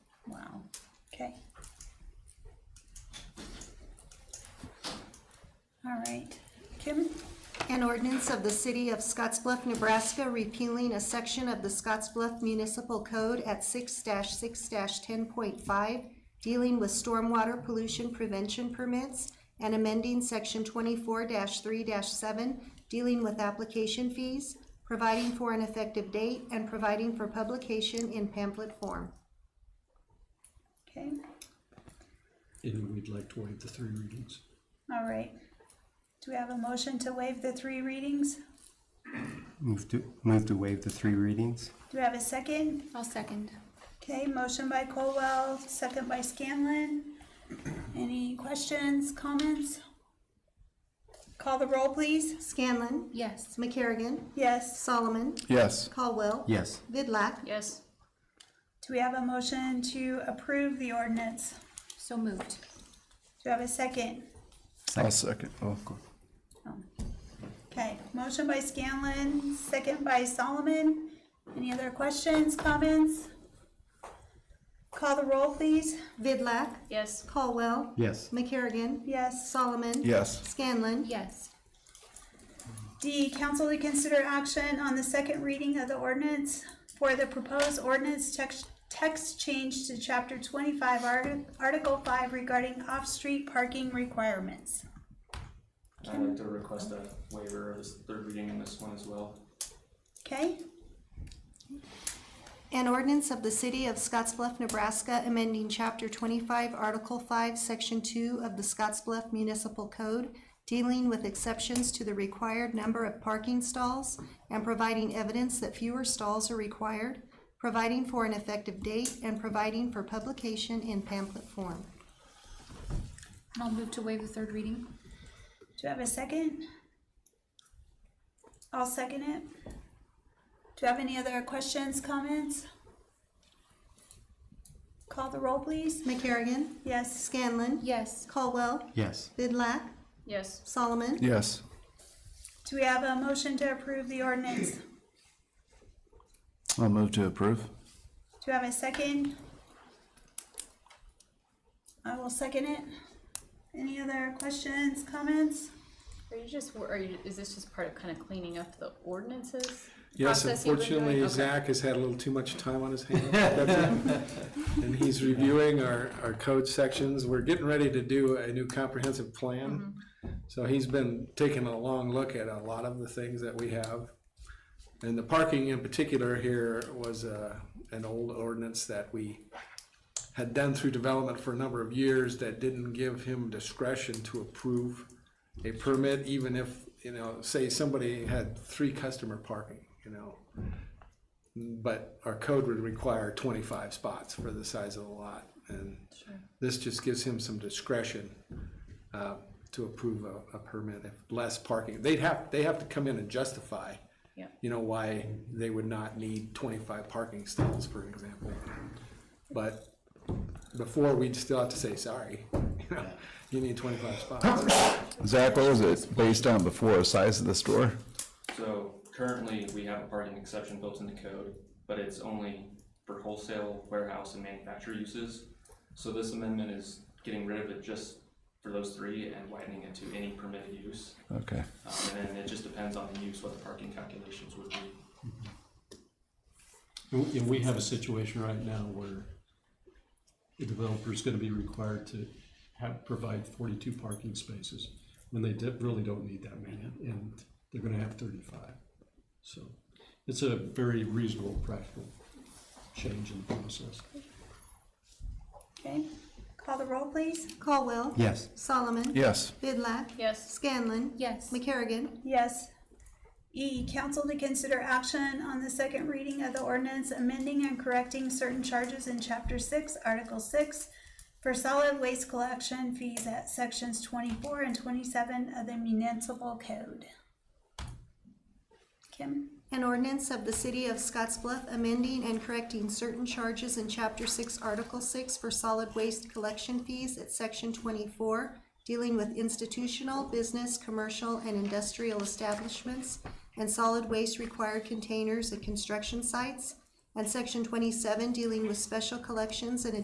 Okay. All right, Kim, An ordinance of the City of Scottsbluff, Nebraska repealing a section of the Scottsbluff Municipal Code at six six ten point five, dealing with stormwater pollution prevention permits, and amending section twenty-four three seven, dealing with application fees, providing for an effective date, and providing for publication in pamphlet form. okay, And we'd like to waive the three readings. all right. Do we have a motion to waive the three readings? Move to, move to waive the three readings? Do we have a second? I'll second. Okay, motion by Colwell, second by Scanlon. Any questions, comments? Call the roll, please. Scanlon, Yes. McCarrigan, Yes. Solomon, Yes. Caldwell. Yes. Vidlac. Yes. Do we have a motion to approve the ordinance? So moved. Do we have a second? I'll second. Oh, go- Okay, motion by Scanlon, second by Solomon. Any other questions, comments? Call the roll, please. Vidlac, Yes. Caldwell, Yes. McCarrigan, Yes. Solomon. Yes. Scanlon. Yes. D, council to consider action on the second reading of the ordinance for the proposed ordinance text, text change to chapter twenty-five, Arti- article five regarding off-street parking requirements. I'd like to request a waiver of this third reading in this one as well. Okay, An ordinance of the City of Scottsbluff, Nebraska, amending Chapter 25, Article 5, Section 2 of the Scottsbluff Municipal Code, dealing with exceptions to the required number of parking stalls and providing evidence that fewer stalls are required, providing for an effective date, and providing for publication in pamphlet form. I'll move to waive the third reading. do you have a second? I'll second it. Do you have any other questions, comments? Call the roll, please. McCarrigan. Yes. Scanlon. Yes. Caldwell. Yes. Vidlac. Yes. Solomon. Yes. Do we have a motion to approve the ordinance? I'll move to approve. Do you have a second? I will second it. Any other questions, comments? Are you just, wor- are you, is this just part of kind of cleaning up the ordinances? Yes, process you've been doing? unfortunately, Okay. Zach has had a little too much time on his hands. That's it. And he's reviewing our, our code sections. We're getting ready to do a new comprehensive plan. So he's been taking a long look at a lot of the things that we have. And the parking in particular here was, uh, an old ordinance that we had done through development for a number of years that didn't give him discretion to approve a permit, even if, you know, say somebody had three customer parking, you know. But our code would require twenty-five spots for the size of the lot, and this just gives him some discretion uh, to approve a, a permit if less parking. They'd have, they have to come in and justify, Yeah. you know, why they would not need twenty-five parking stalls, for example. But before, we'd still have to say, sorry, you know, you need twenty-five spots. Zach, what was it based on before? Size of the store? So currently, we have a parking exception built in the code, but it's only for wholesale, warehouse, and manufacturer uses. So this amendment is getting rid of it just for those three and widening it to any permitted use. Okay. Um, and then it just depends on the use, what the parking calculations would be. And we- and we have a situation right now where the developer's gonna be required to have, provide forty-two parking spaces when they de- really don't need that many, and they're gonna have thirty-five. So it's a very reasonable, practical change in the process. Okay, call the roll, please. Caldwell. Yes. Solomon. Yes. Vidlac. Yes. Scanlon. Yes. McCarrigan. Yes. E, council to consider action on the second reading of the ordinance amending and correcting certain charges in chapter six, article six for solid waste collection fees at sections twenty-four and twenty-seven of the municipal code. Kim? An ordinance of the City of Scottsbluff amending and correcting certain charges in Chapter Six, Article Six for solid waste collection fees at Section twenty-four, dealing with institutional, business, commercial, and industrial establishments, and solid waste required containers at construction sites, and Section twenty-seven, dealing with special collections and